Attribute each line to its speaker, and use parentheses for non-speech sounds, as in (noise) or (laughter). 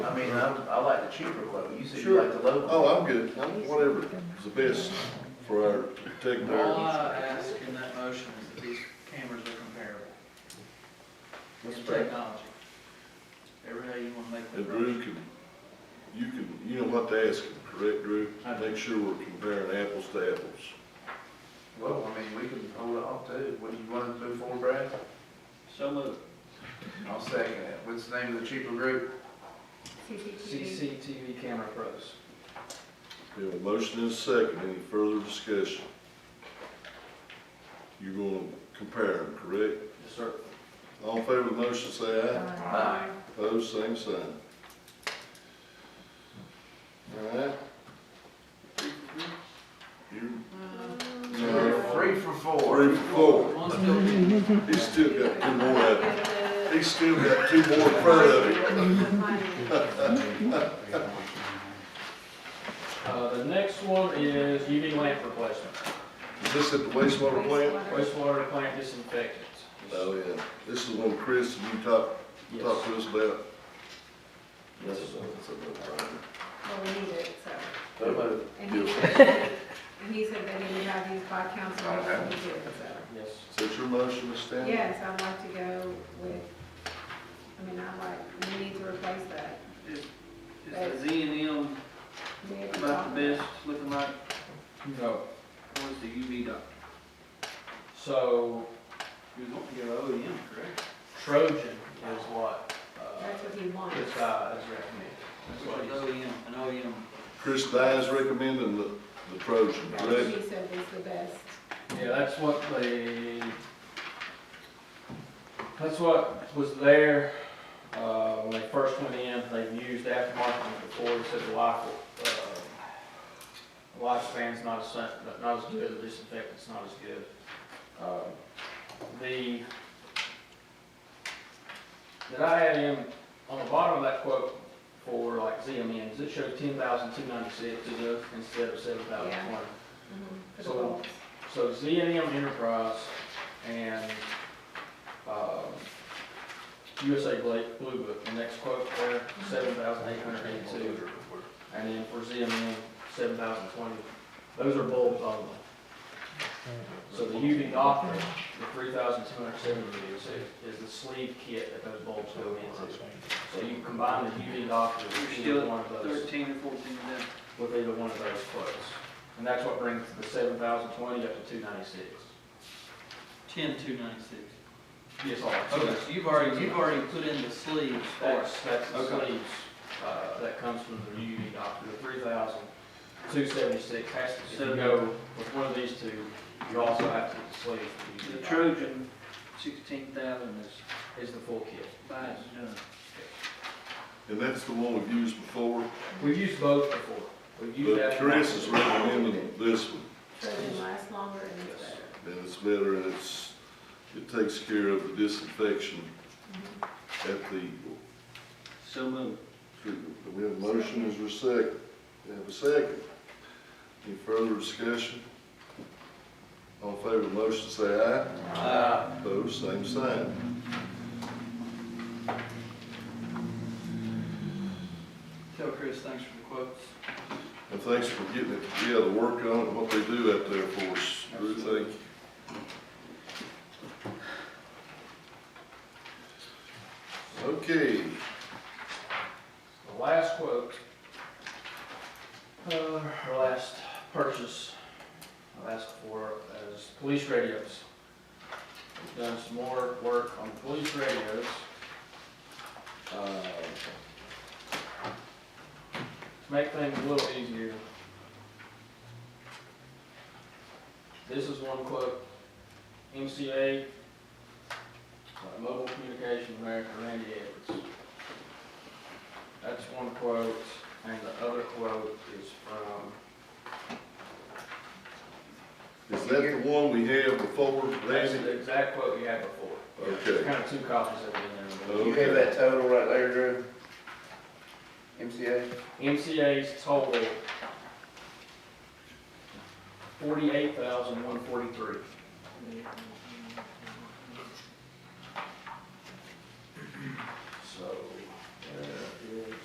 Speaker 1: I'm, I like the cheaper quote, you said you
Speaker 2: Sure.
Speaker 1: like the low. quote.
Speaker 2: Oh, I'm good, whatever, it's the best for our
Speaker 3: All
Speaker 2: technology.
Speaker 3: I ask in that motion is that these cameras are comparable in
Speaker 1: That's fair.
Speaker 3: technology. Every day you wanna make
Speaker 2: And
Speaker 3: that
Speaker 2: Drew
Speaker 3: motion.
Speaker 2: can, you can, you know what to ask him, correct, Drew?
Speaker 3: I do.
Speaker 2: Make sure we're comparing apples to apples.
Speaker 1: Well, I mean, we can hold it off too, what do you want to move forward, Brad?
Speaker 3: So moved.
Speaker 1: I'll second it, what's the name of the cheaper group?
Speaker 4: CCTV.
Speaker 3: CCTV camera pros.
Speaker 2: We have a motion and a second, any further discussion? You're gonna compare them, correct?
Speaker 3: Yes, sir.
Speaker 2: All in favor of the motion, say aye.
Speaker 4: Aye.
Speaker 2: Opposed, same sign. All right. You,
Speaker 1: You're Three for four.
Speaker 2: Mm-hmm. three for four.
Speaker 3: One's built,
Speaker 2: He's still got two more out there. He's still got two more in front of him.
Speaker 5: (laughs) Uh, the next one is UV lamp replacement,
Speaker 2: Is this at the wastewater plant?
Speaker 5: wastewater plant disinfectant.
Speaker 2: Oh, yeah. This is one Chris, and you talked,
Speaker 5: Yes.
Speaker 2: talked to us about.
Speaker 5: Yes.
Speaker 4: Well, we need it, so.
Speaker 1: So moved.
Speaker 4: And he said, and he said that he would have these by council, and we did, so.
Speaker 5: Yes.
Speaker 2: Is that your motion, Ms. Stanley?
Speaker 4: Yes, I'd like to go with, I mean, I like, we need to replace that.
Speaker 3: is, is the Z and M
Speaker 4: We had
Speaker 3: about
Speaker 4: talked-
Speaker 3: the best looking like,
Speaker 5: No,
Speaker 3: or is the UV dot?
Speaker 5: so
Speaker 3: You want to go
Speaker 1: E
Speaker 3: O and M, correct?
Speaker 5: Trojan is what, uh,
Speaker 4: That's what he wants.
Speaker 5: this guy is recommending. That's what
Speaker 3: Which is
Speaker 5: he's-
Speaker 3: O
Speaker 1: E
Speaker 3: and M, an O and M.
Speaker 2: Chris Dye's recommending the, the Trojan,
Speaker 4: That's what
Speaker 2: correct?
Speaker 4: he said was the best.
Speaker 5: Yeah, that's what the, that's what was there, uh, when they first went in, they've used aftermarket before, they said the life, uh, lifespan's not as, sa- not- not as good, the disinfectant's not as good. Um, The, that I had in, on the bottom of that quote for like ZMNs, it showed ten thousand two ninety-six instead of seven thousand twenty.
Speaker 4: Mhm, For the
Speaker 5: So-
Speaker 4: goals.
Speaker 5: So ZNM Enterprise and um, USA Bla- Blue Book, the next quote there, seven thousand eight hundred eighty-two. And then for ZNM, seven thousand twenty. Those are bulbs only. So the UV Docker, the three thousand two hundred seventy-two, is the sleeve kit that those bulbs go into. So you combine the UV Docker with
Speaker 3: You're
Speaker 5: either
Speaker 3: still
Speaker 5: one of those
Speaker 3: Thirteen or fourteen of them.
Speaker 5: with either one of those quotes. And that's what brings the seven thousand twenty up to two ninety-six.
Speaker 3: Ten two ninety-six.
Speaker 5: Yes, all right. So
Speaker 3: Okay,
Speaker 5: that's-
Speaker 3: so you've already, you've already put in the sleeves for
Speaker 5: That's,
Speaker 3: us.
Speaker 5: that's the
Speaker 3: Okay.
Speaker 5: sleeves, uh, that comes from the UV doctor, the three thousand two seventy-six has to, if you
Speaker 3: So-
Speaker 5: go with one of these two, you also have to get the sleeves. for
Speaker 3: The
Speaker 5: UV doctor.
Speaker 3: Trojan, sixteen thousand is
Speaker 5: Is the full kit.
Speaker 3: by and done.
Speaker 2: And that's the one we've used before,
Speaker 5: We've used both before. We've used
Speaker 2: but
Speaker 5: that.
Speaker 2: Chris is recommending this one.
Speaker 4: So it lasts longer and it's better.
Speaker 2: And it's better, and it's, it takes care of the disinfection
Speaker 4: Mm-hmm.
Speaker 2: at the,
Speaker 3: So moved.
Speaker 2: treatment. we have a motion as our second, we have a second. Any further discussion? All in favor of the motion, say aye.
Speaker 3: Uh,
Speaker 2: Opposed, same sign.
Speaker 3: tell Chris, thanks for the quotes.
Speaker 2: And thanks for getting it together, working on it, what they do out there for us. Drew, thank you. Okay,
Speaker 5: The last quote, uh, our last purchase, I asked for is police radios. We've done some more work on police radios. Uh, To make things a little easier. This is one quote, MCA, uh, Mobile Communication America, Randy Edwards. That's one quote, and the other quote is from,
Speaker 2: is that the one we had before,
Speaker 5: that's
Speaker 2: Randy?
Speaker 5: the exact quote we had before. There's
Speaker 2: Okay,
Speaker 5: kind of two copies of it
Speaker 1: You have that total right there, Drew? MCA?
Speaker 5: in there. MCA's total, forty-eight thousand, one forty-three.
Speaker 4: Mhm.
Speaker 5: uh,